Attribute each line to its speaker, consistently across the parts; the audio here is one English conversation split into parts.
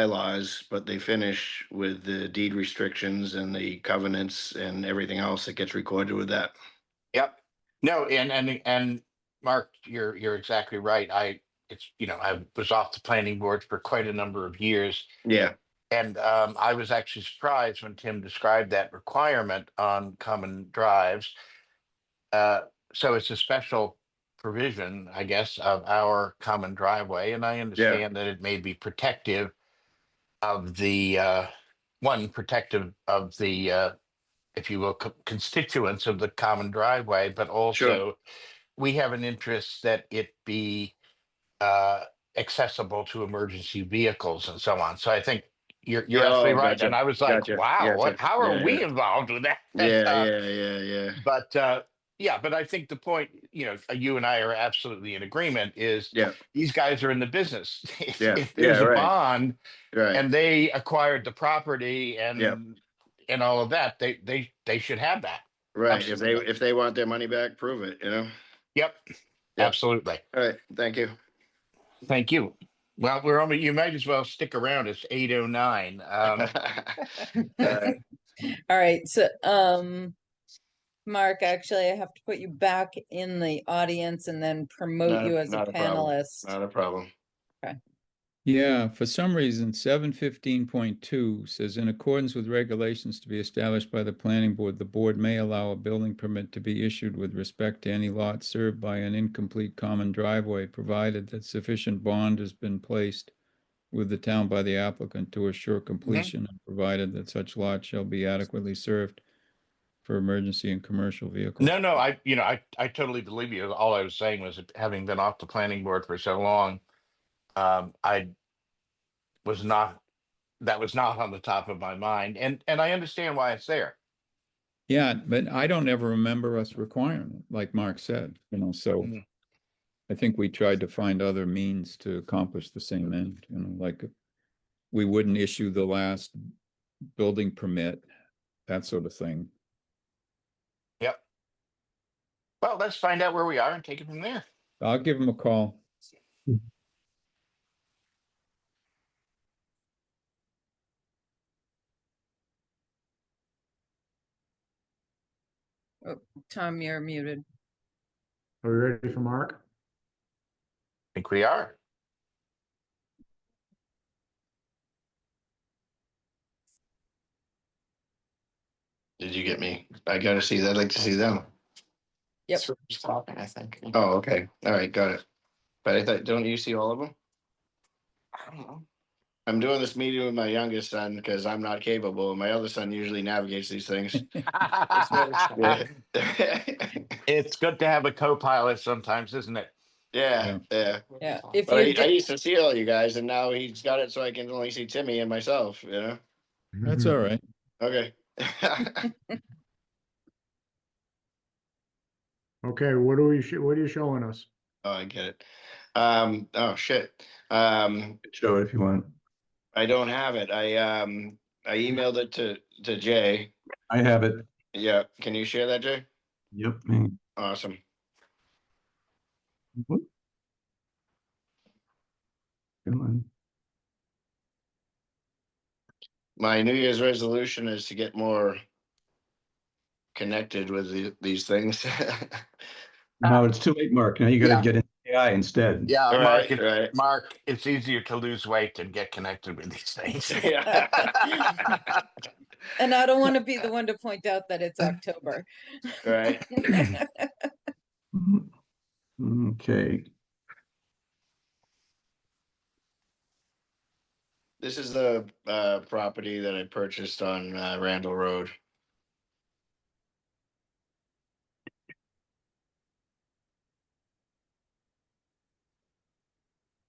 Speaker 1: bylaws, but they finish with the deed restrictions and the covenants and everything else that gets recorded with that.
Speaker 2: Yep. No, and, and, and Mark, you're, you're exactly right. I, it's, you know, I was off the planning board for quite a number of years.
Speaker 1: Yeah,
Speaker 2: And um, I was actually surprised when Tim described that requirement on common drives. Uh, so it's a special provision, I guess, of our common driveway, and I understand that it may be protective of the uh, one protective of the, uh, if you will, co- constituents of the common driveway, but also we have an interest that it be uh, accessible to emergency vehicles and so on. So I think you're you're
Speaker 1: Yeah,
Speaker 2: absolutely
Speaker 1: oh,
Speaker 2: right.
Speaker 1: gotcha,
Speaker 2: And I was like,
Speaker 1: gotcha,
Speaker 2: wow, what
Speaker 1: gotcha.
Speaker 2: how are
Speaker 1: Yeah,
Speaker 2: we
Speaker 1: yeah.
Speaker 2: involved with that?
Speaker 1: yeah,
Speaker 2: Uh,
Speaker 1: yeah, yeah, yeah.
Speaker 2: But uh yeah, but I think the point, you know, you and I are absolutely in agreement is
Speaker 1: Yeah.
Speaker 2: these guys are in the business. If,
Speaker 1: Yeah,
Speaker 2: if there's
Speaker 1: yeah,
Speaker 2: a
Speaker 1: right.
Speaker 2: bond
Speaker 1: Right,
Speaker 2: and they acquired the property and
Speaker 1: Yep.
Speaker 2: and all of that, they they they should have that.
Speaker 1: right. If they,
Speaker 2: absolutely.
Speaker 1: if they want their money back, prove it, you know?
Speaker 2: Yep.
Speaker 1: Yep.
Speaker 2: Absolutely.
Speaker 1: All right, thank you.
Speaker 2: Thank you. Well, we're only you might as well stick around. It's 809. Um
Speaker 1: Uh,
Speaker 3: All right, so, um, Mark, actually, I have to put you back in the audience and then
Speaker 1: Not
Speaker 3: promote
Speaker 1: a-
Speaker 3: you as a
Speaker 1: not a problem.
Speaker 3: panelist.
Speaker 1: Not a problem.
Speaker 4: Yeah, for some reason, seven fifteen point two says in accordance with regulations to be established by the planning board, the board may allow a building permit to be issued with respect to any lot served by an incomplete common driveway, provided that sufficient bond has been placed with the town by the applicant to assure completion, and provided that such lot shall be adequately served for emergency and commercial vehicles.
Speaker 2: No, no, I, you know, I, I totally believe you. All I was saying was, having been off the planning board for so long, um, I was not, that was not on the top of my mind, and, and I understand why it's there.
Speaker 4: Yeah, but I don't ever remember us requiring it, like Mark said, you know, so.
Speaker 2: Mm.
Speaker 4: I think we tried to find other means to accomplish the same end, you know, like. We wouldn't issue the last building permit, that sort of thing.
Speaker 2: Well, let's find out where we are and take it from there.
Speaker 4: I'll give him a call.
Speaker 3: Tom, you're muted.
Speaker 5: Are we ready for Mark?
Speaker 2: I think we are.
Speaker 1: Did you get me? I gotta see, that. I'd like to see them.
Speaker 3: Yep.
Speaker 1: That's what I was talking, I think. Oh, okay, all right, got it. But I thought, don't you see all of them?
Speaker 2: I don't know.
Speaker 1: I'm doing this meeting with my youngest son because I'm not capable. My other son usually navigates these things. Yeah,
Speaker 2: It's good to have a co-pilot sometimes, isn't it?
Speaker 1: yeah. yeah.
Speaker 3: Yeah, if
Speaker 1: But
Speaker 3: you,
Speaker 1: I, I
Speaker 3: di-
Speaker 1: used to see all you guys and now he's got it so I can only see Timmy and myself, you know?
Speaker 4: That's
Speaker 2: Mm-hmm.
Speaker 4: all right.
Speaker 1: Okay. Oh,
Speaker 5: Okay, what are we, sho- what are you showing us?
Speaker 1: Oh, I get it. Um, oh, shit. Um,
Speaker 5: Show it if you want.
Speaker 1: I don't have it. I, um, I emailed it to, to Jay.
Speaker 6: I have it.
Speaker 1: Yeah, can you share that, Jay?
Speaker 6: Yep.
Speaker 5: Hmm.
Speaker 6: hang
Speaker 1: Awesome.
Speaker 6: on.
Speaker 1: My New Year's resolution is to get more connected with the- these things.
Speaker 6: No, it's too late, Mark. Now you
Speaker 2: Yeah.
Speaker 6: gotta get in AI instead.
Speaker 2: Yeah, Mark,
Speaker 1: Right,
Speaker 2: it-
Speaker 1: right.
Speaker 2: Mark, it's easier to lose weight than get connected with these things.
Speaker 1: Yeah.
Speaker 3: and I don't want to be the one to point out that it's October.
Speaker 1: Right.
Speaker 6: Mhm. Okay,
Speaker 1: This is the uh property that I purchased on uh, Randall Road.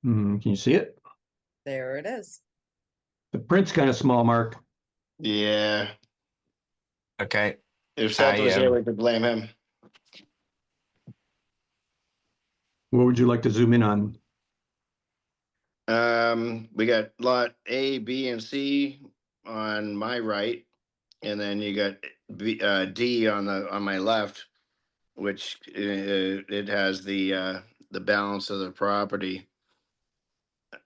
Speaker 6: Hmm, can you see it?
Speaker 3: There it is.
Speaker 6: The print's kind of small, Mark.
Speaker 1: Yeah,
Speaker 2: Okay.
Speaker 1: if Seth was here,
Speaker 2: am-
Speaker 1: we could blame him.
Speaker 6: What would you like to zoom in on?
Speaker 1: Um, we got lot A, B, and C on my right. And then you got B, uh, D on the, on my left, which uh, it has the, uh, the balance of the property.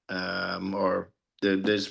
Speaker 1: Um, or the, there's